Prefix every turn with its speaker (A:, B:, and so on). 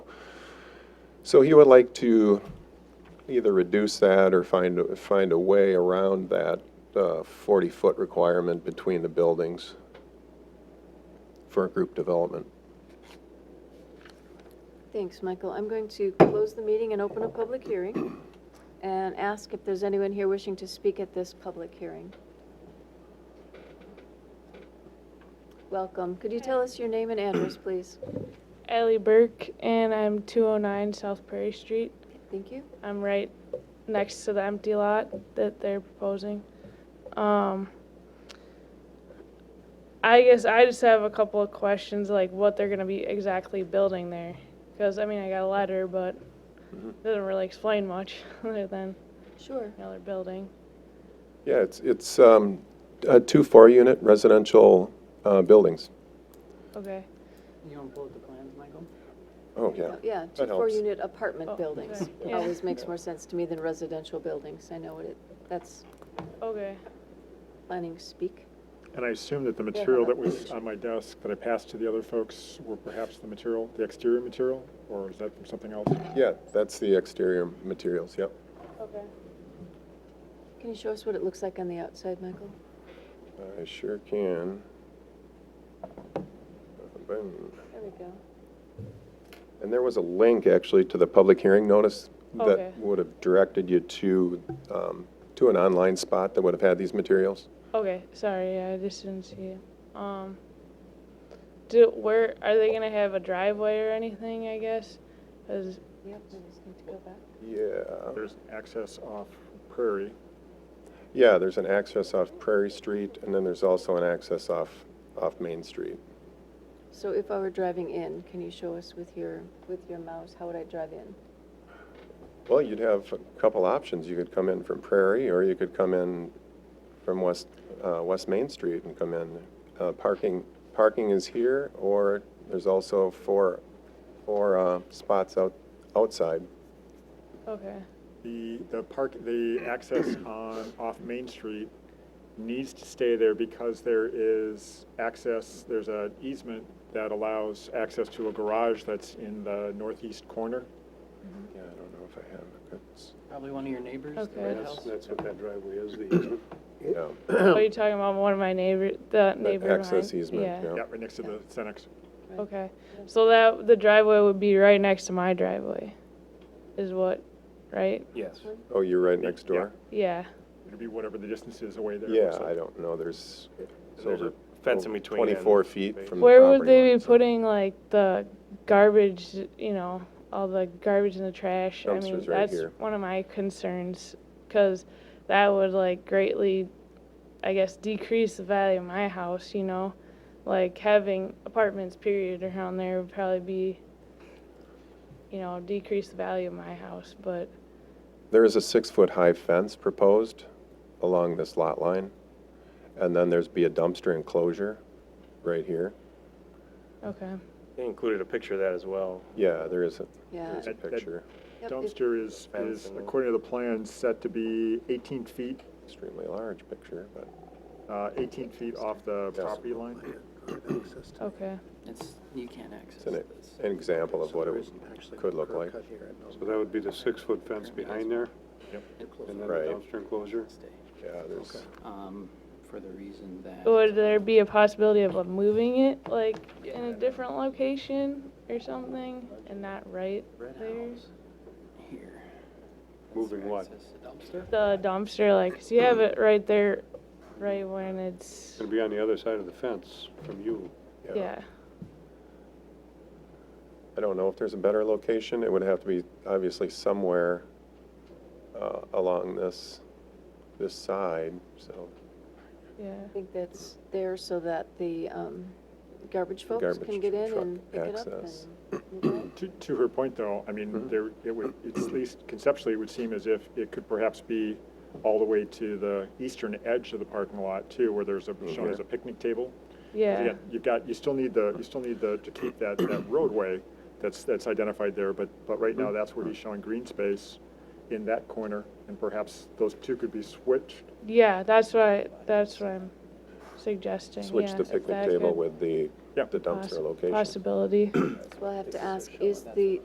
A: So he would like to either reduce that or find, find a way around that uh, 40-foot requirement between the buildings for group development.
B: Thanks, Michael. I'm going to close the meeting and open a public hearing and ask if there's anyone here wishing to speak at this public hearing. Welcome. Could you tell us your name and address, please?
C: Ellie Burke, and I'm 209 South Prairie Street.
B: Thank you.
C: I'm right next to the empty lot that they're proposing. Um, I guess I just have a couple of questions, like what they're gonna be exactly building there. Because, I mean, I got a letter, but it doesn't really explain much other than,
B: Sure.
C: you know, they're building.
A: Yeah, it's, it's um, uh, two four-unit residential uh, buildings.
C: Okay.
D: You want to pull up the plans, Michael?
A: Oh, yeah.
B: Yeah, two
A: That helps.
B: four-unit apartment
C: Oh,
B: buildings.
C: okay. Yeah.
B: Always makes more sense to me than residential buildings. I know what it, that's
C: Okay.
B: planning speak.
E: And I assume that the material that was on my desk that I passed to the other folks were perhaps the material, the exterior material, or is that from something else?
A: Yeah, that's the exterior materials, yep.
C: Okay.
B: Can you show us what it looks like on the outside, Michael?
A: I sure can. Boom.
B: There we go.
A: And there was a link, actually, to the public hearing notice
C: Okay.
A: that would have directed you to, um, to an online spot that would have had these materials.
C: Okay, sorry, I just didn't see it. Um, do, where, are they gonna have a driveway or anything, I guess? 'Cause-
B: Yep, I just need to go back.
A: Yeah.
E: There's access off Prairie.
A: Yeah, there's an access off Prairie Street, and then there's also an access off, off Main Street.
B: So if I were driving in, can you show us with your, with your mouse, how would I drive in?
A: Well, you'd have a couple options. You could come in from Prairie, or you could come in from West, uh, West Main Street and come in. Uh, Parking, parking is here, or there's also four, four uh, spots out, outside.
C: Okay,
E: The, the park, the access on, off Main Street needs to stay there because there is access, there's an easement that allows access to a garage that's in the northeast corner.
A: Yeah, I don't know if I have,
D: Probably one of your neighbors, the
C: Okay.
D: red
F: That's,
D: house.
F: that's what that driveway is, the easement.
A: yeah.
C: what are you talking about, one of my neighbor, the neighbor behind?
A: access easement, yeah.
E: Yeah, right next to the Senex.
B: Right.
C: Okay, so that, the driveway would be right next to my driveway, is what, right?
F: Yes.
A: Oh, you're right next door?
C: Yeah,
E: It'd be whatever the distance is away there. it
A: Yeah,
E: looks like.
A: I don't know, there's. it's
F: There's a
A: over-
F: fence
A: over
F: in between
A: Twenty-four
F: and-
A: feet from the
C: where would
A: property
C: they
A: line,
C: be
A: so-
C: putting like the garbage, you know, all the garbage and the trash? I mean,
A: Dumpsters right
C: that's
A: here.
C: one of my concerns, cause that would like greatly, I guess, decrease the value of my house, you know? Like having apartments period around there would probably be, you know, decrease the value of my house, but,
A: There is a six-foot-high fence proposed along this lot line, and then there's be a dumpster enclosure right here.
C: okay.
F: They included a picture of that as well.
A: Yeah, there is a,
B: Yeah.
A: there's a
E: That- that-
A: picture,
B: Yep, if-
E: Dumpster is,
F: Fence
E: is,
F: and-
E: according to the plan, set to be 18 feet,
A: extremely large picture, but
E: uh, 18 feet off the
A: Yes.
E: property line.
C: Okay,
D: It's, you can't access
A: it's an,
D: this.
A: an example of what it could look like.
F: So that would be the six-foot fence behind there, and then the
A: Right.
F: dumpster enclosure?
D: Stay,
A: Yeah, there's,
D: um, For the reason that.
C: would there be a possibility of like, moving it, like, in a different location or something, and not right
D: Red
C: there?
D: house here. That's
F: Moving
D: their
F: what?
D: access to Dumpster.
C: the dumpster, like, 'cause you have it right there, right when it's,
F: It's gonna be on the other side of the fence from you.
A: yeah.
C: yeah,
A: I don't know if there's a better location. It would have to be obviously somewhere uh, along this, this side, so
C: yeah.
B: I think that's there so that the um, garbage folks
A: garbage
B: can get in
A: truck
B: and pick it up
A: access.
B: and move on.
E: To, to her point, though, I mean, there, it would, it's at least conceptually, it would seem as if it could perhaps be all the way to the eastern edge of the parking lot, too, where there's a, shown as a picnic table.
C: Yeah,
E: Again, You've got, you still need the, you still need the, to keep that, that roadway that's, that's identified there, but, but right now, that's where he's showing green space in that corner, and perhaps those two could be switched
C: yeah, that's what, I- that's what I'm suggesting, yeah.
A: switch the
C: if
A: picnic
C: that
A: table
C: could
A: with the,
E: Yep.
A: the dumpster
C: possi-
A: location.
C: Possibility.
B: So I'll have to ask, is the,